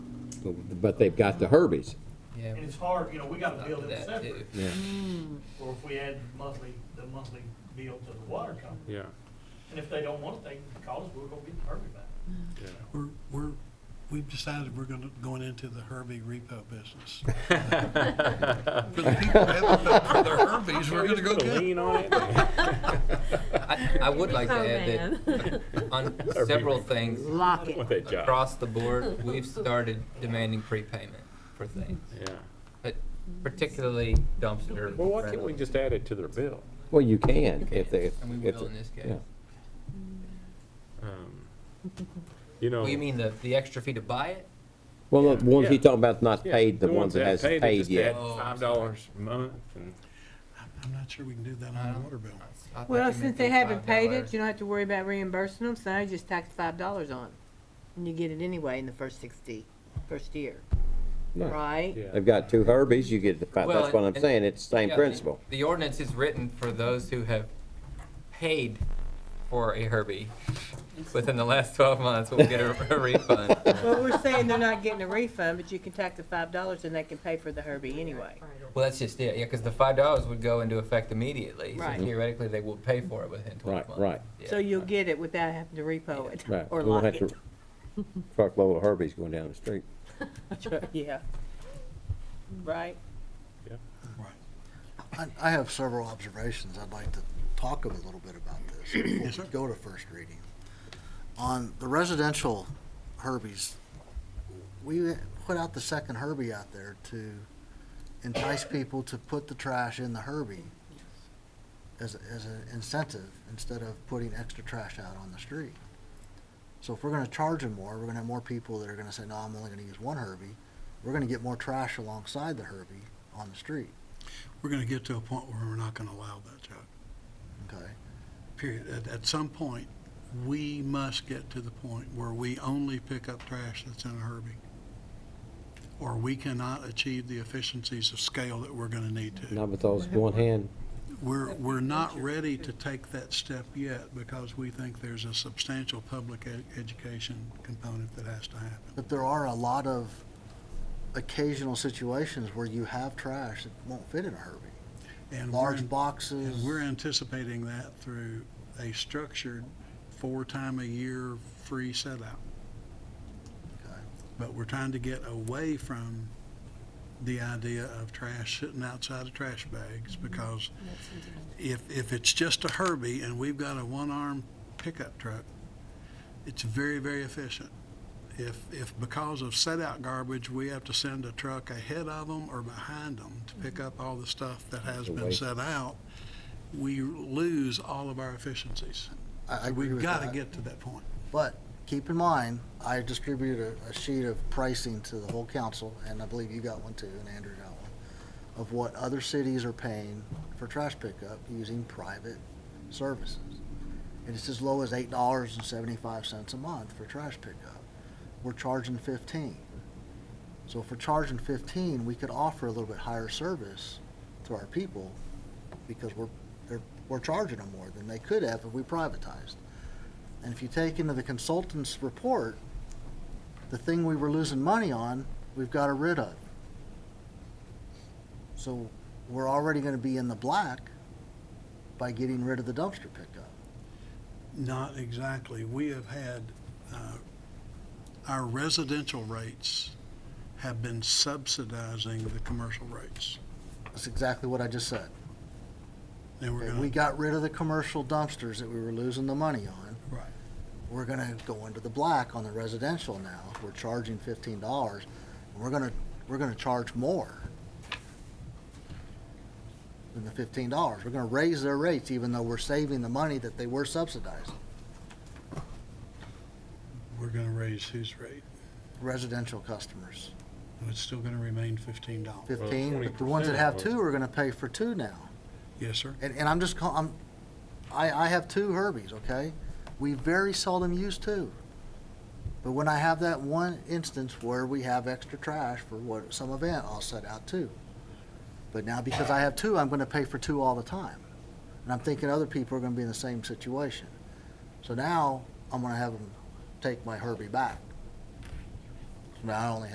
but they've got the Herbies. Yeah. And it's hard, you know, we gotta bill it That separate, too. Yeah. or if we add monthly, the monthly bill to the water company. Yeah, And if they don't want it, they can call us, we'll go get the permit back. yeah. We're, we're, we've decided we're gonna, going into the Herbie repo business. For the people that have the- for the Herbies, we're gonna go Put a get. lien on it. I, I would like to add that on several things Lock it. What that job? across the board, we've started demanding prepayment for things, Yeah. but particularly dumpster. Well, why can't we just add it to their bill? Well, you can if they. And we if will they- in this case. yeah. Um, You know. Well, you mean the, the extra fee to buy it? Well, the ones Yeah. he's talking about not yeah, paid, the ones that haven't hasn't they paid just add yet. Oh, I'm Five sorry. dollars a month and. I'm not sure we can do that on the water bill. I thought you Well, meant since they the haven't paid $5. it, you don't have to worry about reimbursing them, so now you just tax five dollars on it. And you get it anyway in the first sixty, first year, No. right? Yeah. They've got two Herbies, you get the five, Well, that's what I'm and- saying, it's the same Yeah, principle. The ordinance is written for those who have paid for a Herbie within the last twelve months, will get a a refund. Well, we're saying they're not getting a refund, but you can tax the five dollars and they can pay for the Herbie anyway. Well, that's just it, yeah, because the five dollars would go into effect immediately, so Right. theoretically, they will pay for it within Right, twelve months. right, Yeah. So you'll get it without having to repo it right. or We won't lock have it. to Truckload of Herbies going down the street. Yeah. Right? I, I have several observations. I'd like to talk a little bit about this before we go to first reading. On the residential Herbies, we put out the second Herbie out there to entice people to put the trash in the Herbie as, as an incentive instead of putting extra trash out on the street. So if we're gonna charge them more, we're gonna have more people that are gonna say, no, I'm only gonna use one Herbie. We're gonna get more trash alongside the Herbie on the street, We're gonna get to a point where we're not gonna allow that, Chuck, okay? period. At, at some point, we must get to the point where we only pick up trash that's in a Herbie. Or we cannot achieve the efficiencies of scale that we're gonna need to. Not with those one hand, We're, we're not ready to take that step yet because we think there's a substantial public ed- education component that has to happen. But there are a lot of occasional situations where you have trash that won't fit in a Herbie. And we're, Large and boxes. we're anticipating that through a structured four-time-a-year free set out. Okay. But we're trying to get away from the idea of trash sitting outside of trash bags because if, if it's just a Herbie and we've got a one-arm pickup truck, it's very, very efficient. If, if because of set-out garbage, we have to send a truck ahead of them or behind them to pick up all the stuff that has The been waste. set out, we lose all of our efficiencies. I, I agree We've with got to that. get to that point. But keep in mind, I distributed a, a sheet of pricing to the whole council, and I believe you got one too, and Andrew got one, of what other cities are paying for trash pickup using private services. And it's as low as eight dollars and seventy-five cents a month for trash pickup. We're charging fifteen. So if we're charging fifteen, we could offer a little bit higher service to our people because we're, they're, we're charging them more than they could have if we privatized. And if you take into the consultant's report, the thing we were losing money on, we've got rid of. So we're already gonna be in the black by getting rid of the dumpster pickup. Not exactly. We have had, uh, our residential rates have been subsidizing the commercial rates. That's exactly what I just said. And we're Okay, We going to, got rid of the commercial dumpsters that we were losing the money on. Right. We're gonna go into the black on the residential now. We're charging fifteen dollars. We're gonna, we're gonna charge more than the fifteen dollars. We're gonna raise their rates even though we're saving the money that they were subsidizing, we're going to raise whose rate? residential customers. And It's still going to remain fifteen dollars. Fifteen, but the ones that have 20% two are gonna pay for two now. Yes, sir. And, and I'm just call, I'm, I, I have two Herbies, okay? We very seldom use two. But when I have that one instance where we have extra trash for what, some event, I'll set out two. But now because I have two, I'm gonna pay for two all the time. And I'm thinking other people are gonna be in the same situation. So now, I'm gonna have them take my Herbie back. Now I only